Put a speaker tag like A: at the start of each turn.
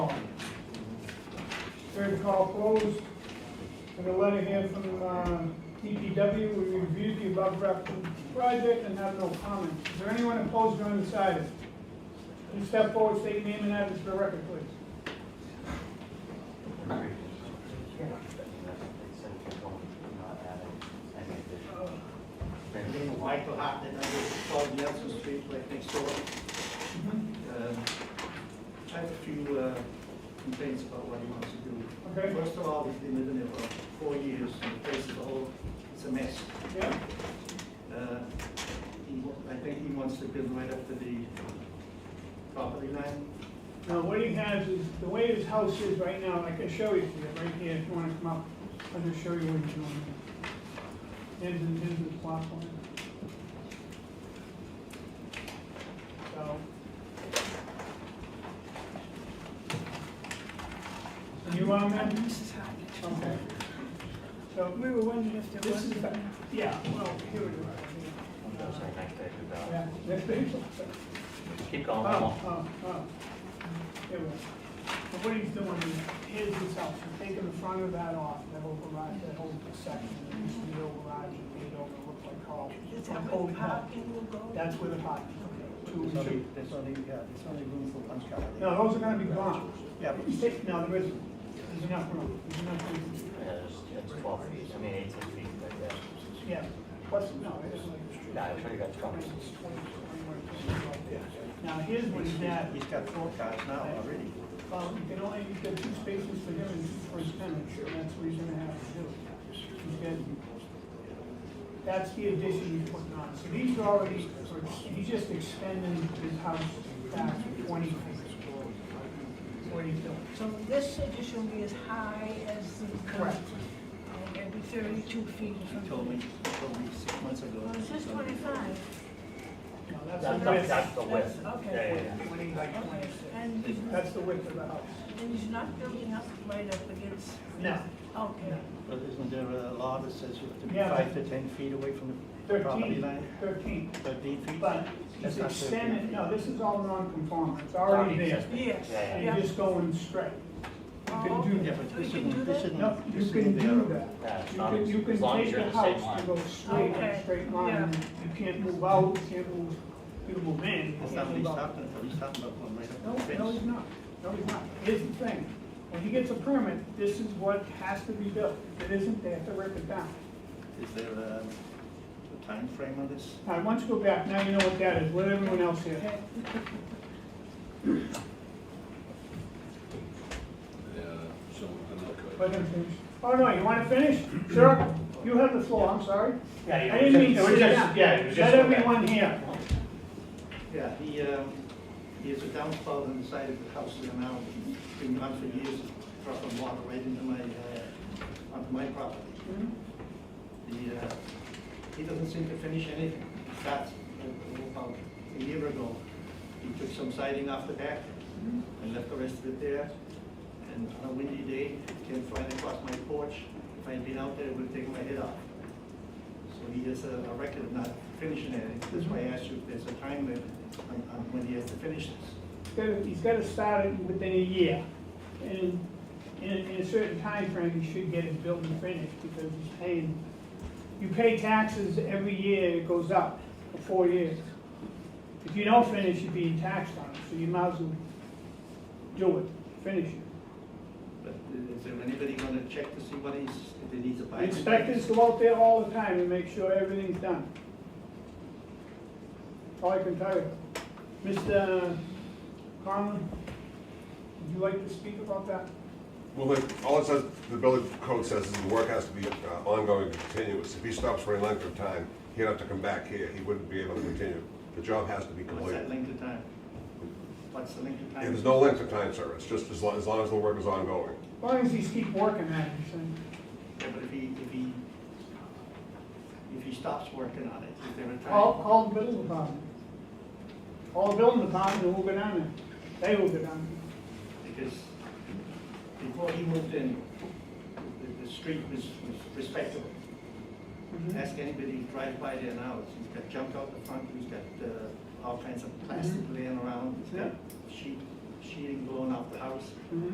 A: Third call closed. And a letter here from uh, DPW, we reviewed the above referenced project and have no comment. Is there anyone opposed or undecided? Please step forward, state your name and address for the record, please.
B: Michael Hartnett, I live at 12 Nelson Street, right next door. Um, I have a few uh, complaints about what he wants to do.
A: Okay,
B: First of all, he's been living there for four years, and the place is all, it's a mess.
A: yeah,
B: Uh, he wa- I think he wants to build right up to the property line.
A: now what he has is, the way his house is right now, and I can show you here, right here, if you wanna come up, I'll just show you what he's doing. Here's, the- here's the plot plan. So. You want that?
C: Mrs. Hartnett.
A: Okay. So,
C: We were wondering if there
A: this
C: was.
A: is, the- yeah, well, here it is. Uh, Yeah, next page.
D: Keep
A: Oh,
D: going, come on.
A: oh, oh. It was. But what he's doing is, is his house, he's taking the front of that off, that whole garage, that whole section, that used to be the old garage, and made it over, looked like Carl.
C: Is that
A: Oh, no.
C: where the parking will go?
A: That's where the pot. two-
B: There's only,
A: two-
B: there's only, yeah, there's only room for one car. there.
A: No, those are gonna be gone.
B: Yeah, but
A: You take, no, there isn't, there's enough room, there's enough room,
D: Yeah, it's, it's twelve feet, I mean eighteen feet like that.
A: yeah, plus, no, it's like.
D: Nah, I'm sure you got trouble.
A: It's 20, 21, 22. Now, here's what he's at.
B: he's got four cars now already.
A: Well, Um, you can only, you get two spaces for him and two for his tenant, and that's what he's gonna have to do. He's getting- That's the addition he's putting on, so these are already, he's just extending his house back twenty feet. What he's doing.
C: So this addition will be as high as the.
A: Correct.
C: And it'll be thirty-two feet or
B: He told
C: something.
B: me, he told me six months ago.
C: Well, it says twenty-five.
A: Now, that's
D: That's,
A: the
D: the-
A: width,
D: that's the width.
C: That's- okay.
D: Yeah, yeah, yeah.
A: Twenty by
C: Okay,
A: 26.
C: and,
A: That's the width of the house.
C: and he's not building up right up against.
A: No.
C: Okay.
B: But isn't there a law that says you have to be
A: Yeah, but-
B: five to 10 feet away from the property
A: Thirteen.
B: line?
A: 13.
B: 13 feet?
A: but
B: That's
A: he's
B: not
A: extending,
B: 13.
A: no, this is all non-conforming, it's already there.
D: Non-existent.
C: Yes,
D: Yeah,
A: You're
C: yeah.
A: just going straight. You can do
B: Yeah,
A: that.
B: but
C: So
B: this
C: you can do
B: isn't, this
C: that?
B: isn't.
A: No, you
B: this
A: can
B: isn't
A: do
B: there.
A: that.
D: Yeah, it's
A: You
D: not
A: can,
D: as-
A: you
D: as
A: can
D: long as
A: take
D: you're
A: the
D: in the same
A: house,
D: line.
A: you go straight, on a
C: Okay,
A: straight line, and you can't move out, you can't move, you can move in, you
B: That's not
A: can't
B: what he's
A: move out.
B: talking about, he's talking about going right
A: No,
B: up to the
A: no, he's
B: fence.
A: not, no, he's not. Here's the thing, when he gets a permit, this is what has to be built, if it isn't, they have to rip it down.
B: Is there um, a time frame on this?
A: All right, once you go back, now you know what that is, let everyone else hear.
C: Okay.
E: Yeah, someone can look at it.
A: Let him finish. Oh, no, you wanna finish? Sure, you have the floor, I'm sorry.
D: Yeah, you-
A: I didn't mean
D: it
A: to
D: was
A: sit
D: just-
A: down.
D: Yeah, it was
A: Let
D: just.
A: everyone hear.
B: Yeah, he, um, he has a downfall on the side of the house there now, been gone for years, dropping water right into my, uh, onto my property.
C: Mm-hmm.
B: The, uh, he doesn't seem to finish anything. That's about a year ago. He took some siding off the back and left the rest of it there. And on a windy day, it came flying across my porch. If I'd been out there, it would have taken my head off. So he has a a record of not finishing anything. That's why I asked you if there's a time limit on, on when he has to finish this.
A: He's gotta- He's gotta start it within a year. And in, in a certain timeframe, he should get it built and finished because he's paying, you pay taxes every year, it goes up for four years. If you don't finish, you're being taxed on it, so you might as well do it, finish it.
B: But is there anybody gonna check to see what he's, if he needs a bike?
A: Inspectors go out there all the time and make sure everything's done. All I can tell you. Mr. Conlon, would you like to speak about that?
F: Well, the- all it says, the building code says is the work has to be uh, ongoing and continuous. If he stops for any length of time, he'd have to come back here, he wouldn't be able to continue. The job has to be
B: What's that
F: completed.
B: length of time? What's the length of time?
F: And there's no length of time, sir, it's just as long, as long as the work is ongoing.
A: As long as these keep working at it, so-
B: Yeah, but if he, if he, if he stops working on it, is there a
A: call,
B: time?
A: call the building department. Call the building department, and we'll go down there. They will go down
B: Because before he moved in, the, the street was, was respectable.
A: there.
B: Ask anybody who drives by there now, he's got junk out the front, he's got, uh, all kinds of plastic laying around, he's got sheet, sheeting blowing off the house.
A: Mhm.